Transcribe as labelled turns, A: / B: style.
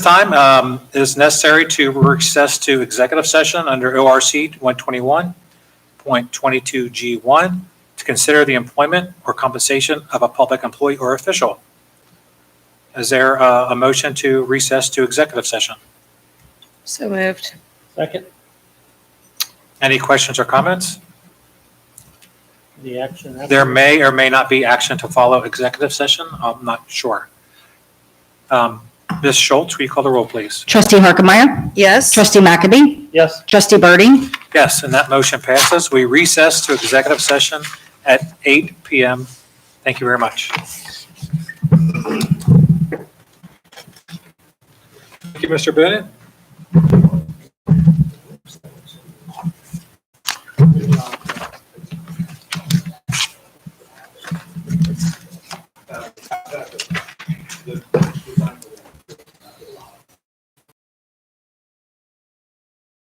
A: time um, it is necessary to recess to executive session under ORC 121.22G1 to consider the employment or compensation of a public employee or official. Is there uh, a motion to recess to executive session?
B: So moved.
C: Second,
A: Any questions or comments?
C: the action. after-
A: There may or may not be action to follow executive session. I'm not sure. Um, Ms. Schultz, will you call the roll, please?
D: Trustee Harkemaier.
B: Yes.
D: Trustee McAbey.
C: Yes,
D: Trustee Birdie.
A: Yes, and that motion passes. We recess to executive session at 8 PM. Thank you very much. Thank you, Mr. Bennett.